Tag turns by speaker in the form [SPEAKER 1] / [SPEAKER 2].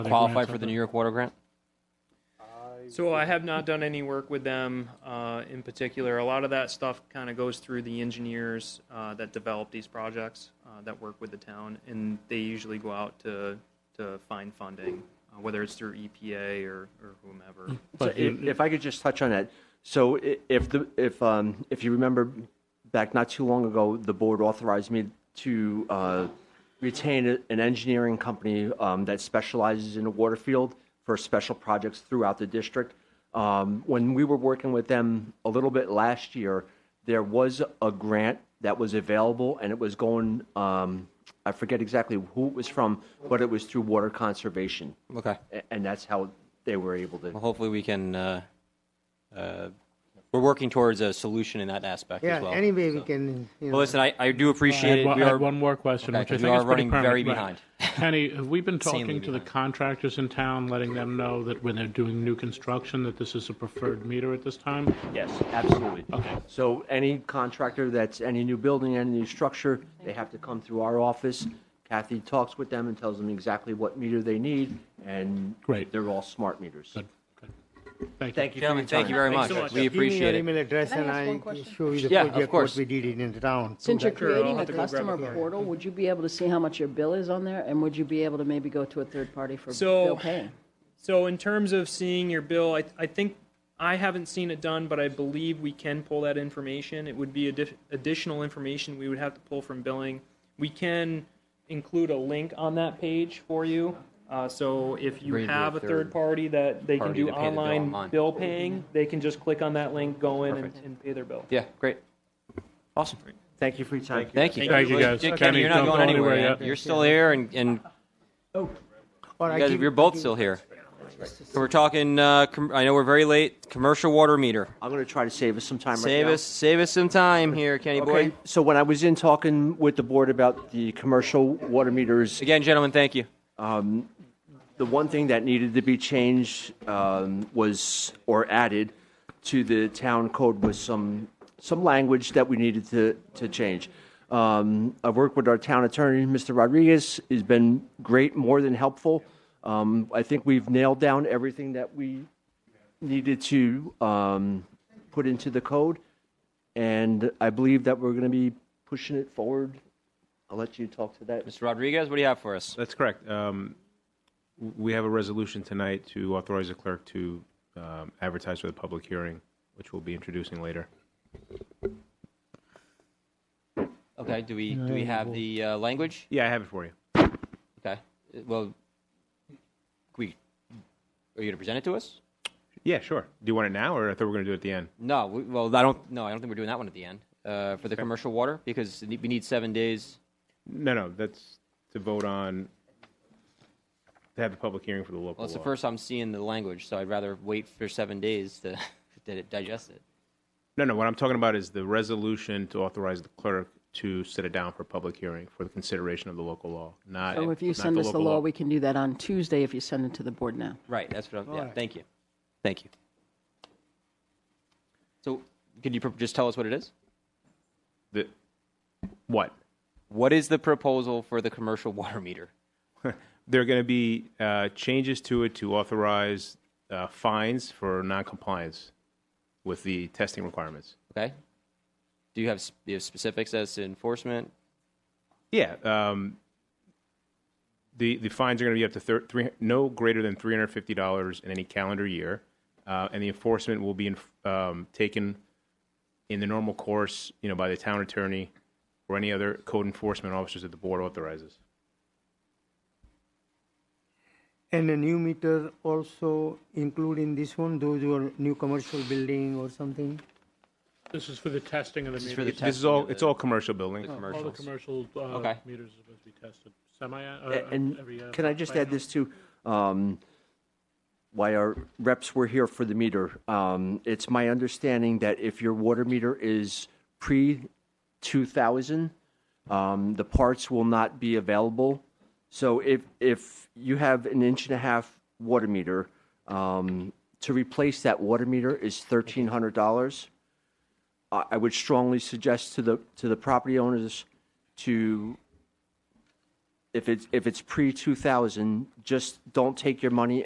[SPEAKER 1] qualify
[SPEAKER 2] grants out
[SPEAKER 1] for the
[SPEAKER 2] there?
[SPEAKER 1] New York Water Grant?
[SPEAKER 3] So I have not done any work with them uh, in particular. A lot of that stuff kind of goes through the engineers uh, that develop these projects uh, that work with the town, and they usually go out to to find funding, uh, whether it's through EPA or, or whomever.
[SPEAKER 4] So
[SPEAKER 2] But
[SPEAKER 4] if, if I could just touch on that, so i- if the if um, if you remember back not too long ago, the board authorized me to uh, retain a- an engineering company um, that specializes in the water field for special projects throughout the district. Um, when we were working with them a little bit last year, there was a grant that was available, and it was going. Um, I forget exactly who it was from, but it was through water conservation,
[SPEAKER 1] Okay.
[SPEAKER 4] A- and that's how they were able to.
[SPEAKER 1] Well, hopefully we can, uh, uh, we're working towards a solution in that aspect
[SPEAKER 5] Yeah,
[SPEAKER 1] as well.
[SPEAKER 5] anybody we can, you know.
[SPEAKER 1] Well, listen, I, I do appreciate
[SPEAKER 2] I
[SPEAKER 1] it.
[SPEAKER 2] had,
[SPEAKER 1] We
[SPEAKER 2] one- I
[SPEAKER 1] are,
[SPEAKER 2] had one more question,
[SPEAKER 1] Okay,
[SPEAKER 2] which I
[SPEAKER 1] 'cause
[SPEAKER 2] think
[SPEAKER 1] we
[SPEAKER 2] is
[SPEAKER 1] are
[SPEAKER 2] pretty
[SPEAKER 1] running very
[SPEAKER 2] pertinent, right. Kenny, have we been
[SPEAKER 1] Insanely
[SPEAKER 2] talking to the contractors in town, letting them know that when they're doing new construction, that this is a preferred meter at this time?
[SPEAKER 4] Yes, absolutely.
[SPEAKER 2] Okay.
[SPEAKER 4] So any contractor that's, any new building, any new structure, they have to come through our office. Kathy talks with them and tells them exactly what meter they need, and
[SPEAKER 2] Great.
[SPEAKER 4] they're all smart meters.
[SPEAKER 2] Good, good. Thank you.
[SPEAKER 4] Thank you for your
[SPEAKER 1] gentlemen, thank you
[SPEAKER 4] time.
[SPEAKER 1] very much.
[SPEAKER 3] so much.
[SPEAKER 1] We
[SPEAKER 5] give me your
[SPEAKER 1] appreciate it.
[SPEAKER 5] email address
[SPEAKER 6] Can I
[SPEAKER 5] and
[SPEAKER 6] ask one
[SPEAKER 5] I
[SPEAKER 6] question?
[SPEAKER 5] show you the
[SPEAKER 1] Yeah, of
[SPEAKER 5] project, what
[SPEAKER 1] course.
[SPEAKER 5] we did in the town.
[SPEAKER 6] Since you're
[SPEAKER 3] Sure, I'll
[SPEAKER 6] creating
[SPEAKER 3] have
[SPEAKER 6] a
[SPEAKER 3] to go grab a
[SPEAKER 6] customer
[SPEAKER 3] card.
[SPEAKER 6] portal, would you be able to see how much your bill is on there? And would you be able to maybe go to a third party for
[SPEAKER 3] So-
[SPEAKER 6] bill paying?
[SPEAKER 3] So in terms of seeing your bill, I, I think, I haven't seen it done, but I believe we can pull that information. It would be addi- additional information we would have to pull from billing. We can include a link on that page for you. Uh, so if you
[SPEAKER 1] Agreed
[SPEAKER 3] have a
[SPEAKER 1] with
[SPEAKER 3] third
[SPEAKER 1] third
[SPEAKER 3] party that they can
[SPEAKER 1] party
[SPEAKER 3] do
[SPEAKER 1] to pay the bill
[SPEAKER 3] online
[SPEAKER 1] online.
[SPEAKER 3] bill paying, they can just click on that link, go in and,
[SPEAKER 1] Perfect.
[SPEAKER 3] and pay their bill.
[SPEAKER 1] Yeah, great. Awesome.
[SPEAKER 4] Thank you for your time.
[SPEAKER 1] Thank you.
[SPEAKER 2] Thank you, guys.
[SPEAKER 1] Kenny,
[SPEAKER 2] Kenny,
[SPEAKER 1] you're
[SPEAKER 2] don't
[SPEAKER 1] not going
[SPEAKER 2] go
[SPEAKER 1] anywhere
[SPEAKER 2] anywhere
[SPEAKER 1] man.
[SPEAKER 2] yet.
[SPEAKER 1] You're still here and, and
[SPEAKER 5] Or I
[SPEAKER 1] you guys,
[SPEAKER 5] give-
[SPEAKER 1] you're both still here. So we're talking, uh, com- I know we're very late, commercial water meter.
[SPEAKER 4] I'm going to try to save us some time right now.
[SPEAKER 1] Save us, save us some time here, Kenny boy.
[SPEAKER 4] Okay, so when I was in talking with the board about the commercial water meters,
[SPEAKER 1] Again, gentlemen, thank you.
[SPEAKER 4] the one thing that needed to be changed um, was, or added to the town code was some, some language that we needed to, to change. Um, I've worked with our town attorney, Mr. Rodriguez, he's been great, more than helpful. Um, I think we've nailed down everything that we needed to um, put into the code, and I believe that we're going to be pushing it forward. I'll let you talk to that, Mr.
[SPEAKER 1] Mr. Rodriguez, what do you have for us?
[SPEAKER 7] That's correct. Um, w- We have a resolution tonight to authorize the clerk to um, advertise for the public hearing, which we'll be introducing later.
[SPEAKER 1] Okay, do we, do we have the, uh, language?
[SPEAKER 7] Yeah, I have it for you.
[SPEAKER 1] Okay, Uh, well, we, are you gonna present it to us?
[SPEAKER 7] Yeah, sure. Do you want it now, or I thought we were going to do it at the end?
[SPEAKER 1] No, we, well, I don't, no, I don't think we're doing that one at the end, uh, for the commercial water, because we need seven days.
[SPEAKER 7] No, no, that's to vote on, to have the public hearing for the local
[SPEAKER 1] Well, it's the
[SPEAKER 7] law.
[SPEAKER 1] first I'm seeing the language, so I'd rather wait for seven days to, to digest it.
[SPEAKER 7] No, no, what I'm talking about is the resolution to authorize the clerk to set it down for public hearing for the consideration of the local law, not.
[SPEAKER 6] So if you
[SPEAKER 7] not
[SPEAKER 6] send us the
[SPEAKER 7] local
[SPEAKER 6] law, we can do that on Tuesday if you send it to the board now.
[SPEAKER 1] Right, that's what I'm, yeah, thank you, thank you. So, could you pro- just tell us what it is?
[SPEAKER 7] The- What?
[SPEAKER 1] What is the proposal for the commercial water meter?
[SPEAKER 7] there are going to be uh, changes to it to authorize uh, fines for noncompliance with the testing requirements.
[SPEAKER 1] Okay? Do you have, s- you have specifics as to enforcement?
[SPEAKER 7] Yeah, um, the the fines are going to be up to thir- three, no greater than three hundred fifty dollars in any calendar year, uh, and the enforcement will be in, um, taken in the normal course, you know, by the town attorney or any other code enforcement officers that the board authorizes.
[SPEAKER 5] And a new meter also include in this one, those who are new commercial building or something?
[SPEAKER 2] This is for the testing of the
[SPEAKER 1] for the
[SPEAKER 2] meters.
[SPEAKER 7] This is
[SPEAKER 1] Testing
[SPEAKER 7] all
[SPEAKER 1] of the-
[SPEAKER 7] it's all commercial buildings.
[SPEAKER 2] All the
[SPEAKER 1] Commercials.
[SPEAKER 2] commercial uh,
[SPEAKER 1] Okay.
[SPEAKER 2] meters are supposed to be tested semi, uh,
[SPEAKER 4] A- And
[SPEAKER 2] every. uh,
[SPEAKER 4] can I just
[SPEAKER 2] by
[SPEAKER 4] add
[SPEAKER 2] now.
[SPEAKER 4] this too? Um, Why our reps were here for the meter, um, it's my understanding that if your water meter is pre-2000, um, the parts will not be available. So if, if you have an inch and a half water meter, um, to replace that water meter is $1,300. I I would strongly suggest to the, to the property owners to if it's, if it's pre-2000, just don't take your money